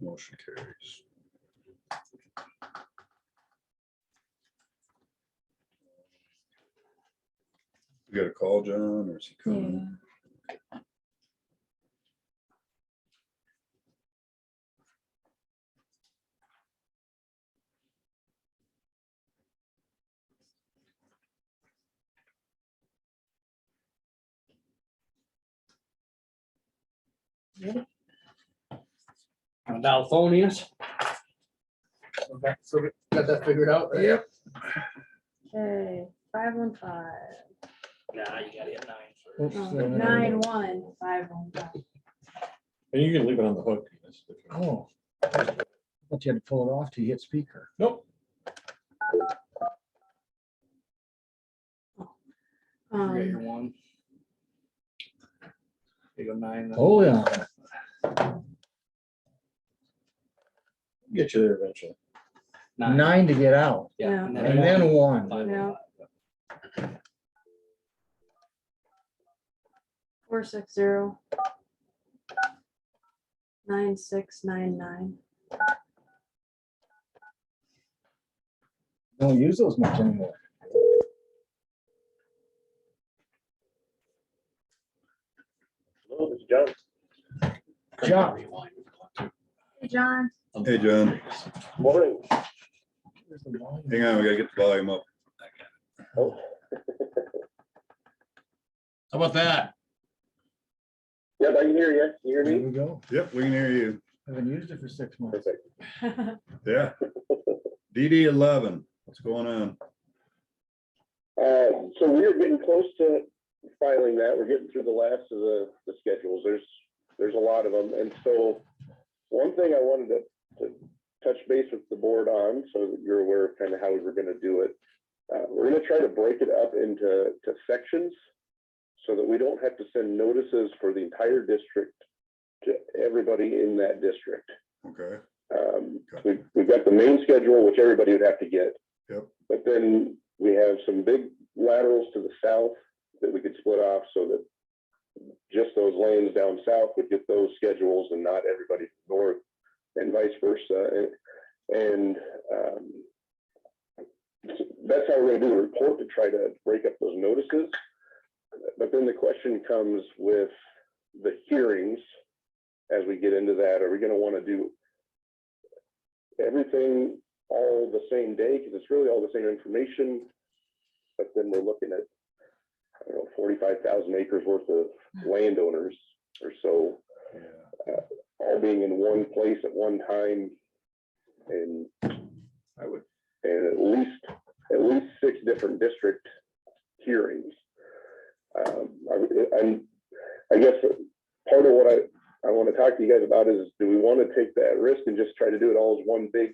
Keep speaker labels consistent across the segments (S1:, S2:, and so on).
S1: Motion carries. You got a call, John, or is he coming?
S2: Yeah.
S3: On Dalphonius.
S4: Okay, so we got that figured out? right?
S1: Yep.
S2: Okay, five one five, Um,
S3: Nah, you gotta hit nine first.
S5: Oops,
S4: uh,
S5: there we go.
S2: Oh, nine one, five one five.
S5: And you can leave it on the hook. Dennis, if you want.
S4: Oh. But you had to pull it off to hit speaker.
S5: Nope,
S3: You got your
S2: Um,
S3: one. You go nine. then-
S4: Oh, yeah.
S5: get you there eventually.
S4: Nine to get out
S3: Yeah.
S2: Yeah.
S4: and then one.
S3: Five,
S2: Yeah.
S3: five.
S2: four six zero. Nine six nine nine.
S4: Don't use those much anymore. John.
S2: Hey, John,
S1: Hey, John,
S6: Morning.
S4: There's the volume.
S1: hang on, we gotta get the volume up.
S6: Oh,
S7: How about that?
S6: Yep, I can hear you. You hear
S4: There
S6: me?
S4: we go.
S1: Yep, we can hear you.
S4: Haven't used it for six months.
S6: Perfect.
S1: Yeah. DD eleven, what's going on?
S6: Uh, so we are getting close to filing that. We're getting through the last of the, the schedules. There's, there's a lot of them. And so one thing I wanted to, to touch base with the board on, so that you're aware of kind of how we were going to do it. Uh, we're going to try to break it up into, to sections so that we don't have to send notices for the entire district to everybody in that district.
S1: Okay,
S6: Um,
S1: Got
S6: we, we've got the main schedule, which everybody would have to get.
S1: Yep.
S6: But then we have some big laterals to the south that we could split off so that just those lanes down south would get those schedules and not everybody north and vice versa. And- And, um, that's how we're gonna do the report to try to break up those notices. But then the question comes with the hearings as we get into that. Are we gonna wanna do everything all the same day, because it's really all the same information. But then we're looking at, I don't know, forty-five thousand acres worth of landowners or so,
S1: yeah,
S6: all being in one place at one time. And I would, and at least, at least six different district hearings. Um, I, would- I'm, I guess part of what I, I want to talk to you guys about is, do we want to take that risk and just try to do it all as one big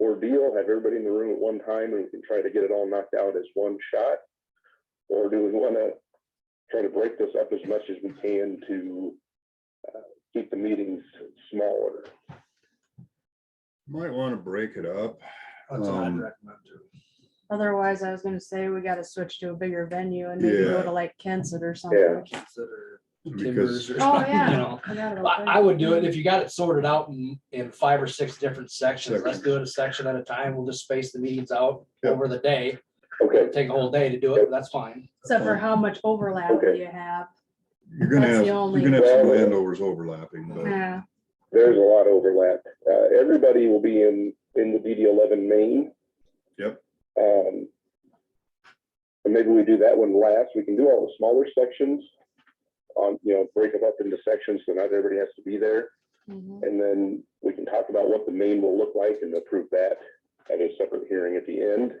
S6: ordeal, have everybody in the room at one time and we can try to get it all knocked out as one shot? Or do we want to try to break this up as much as we can to uh, keep the meetings smaller?
S1: might wanna break it up.
S3: That's what I'd
S1: Um,
S3: recommend too.
S2: otherwise I was gonna say we gotta switch to a bigger venue and maybe
S1: Yeah.
S2: go to like Kensett or something.
S3: Consider
S1: Because
S3: timbers or
S2: Oh,
S3: something, you
S2: yeah.
S3: know.
S2: Forgot about
S3: I,
S2: that.
S3: I would do it if you got it sorted out in, in five or six different sections. Let's
S1: Sections.
S3: do it a section at a time. We'll just space the meetings out
S1: Yep.
S3: over the day.
S6: Okay,
S3: It'll Take a whole day to do it, but that's fine.
S2: Except for how much overlap
S6: Okay.
S2: you have.
S1: You're gonna
S2: That's
S1: have,
S2: the
S1: you're
S2: only-
S1: gonna have some landowners overlapping,
S6: Mm-hmm.
S1: but
S2: Yeah,
S6: there's a lot of overlap. Uh, Everybody will be in, in the DD eleven main.
S1: Yep.
S6: Um, and maybe we do that one last. We can do all the smaller sections on, you know, break them up into sections so not everybody has to be there.
S2: mhm.
S6: And then we can talk about what the main will look like and approve that at a separate hearing at the end.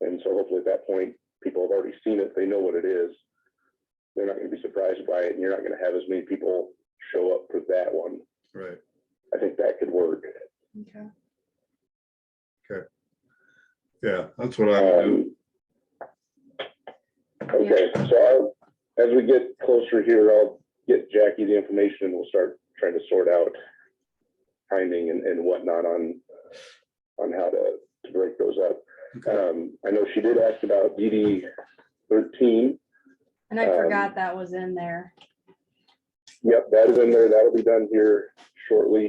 S6: And so hopefully at that point, people have already seen it, they know what it is. They're not gonna be surprised by it, and you're not gonna have as many people show up for that one.
S1: right,
S6: I think that could work.
S2: Okay.
S1: yeah, that's what I would do.
S6: Um, Okay, so I'll, as we get closer here, I'll get Jackie the information and we'll start trying to sort out timing and, and whatnot on, on how to, to break those up.
S1: Okay.
S6: Um, I know she did ask about DD thirteen.
S2: And I
S6: Um,
S2: forgot that was in there.
S6: Yep, that is in there. That'll be done here shortly.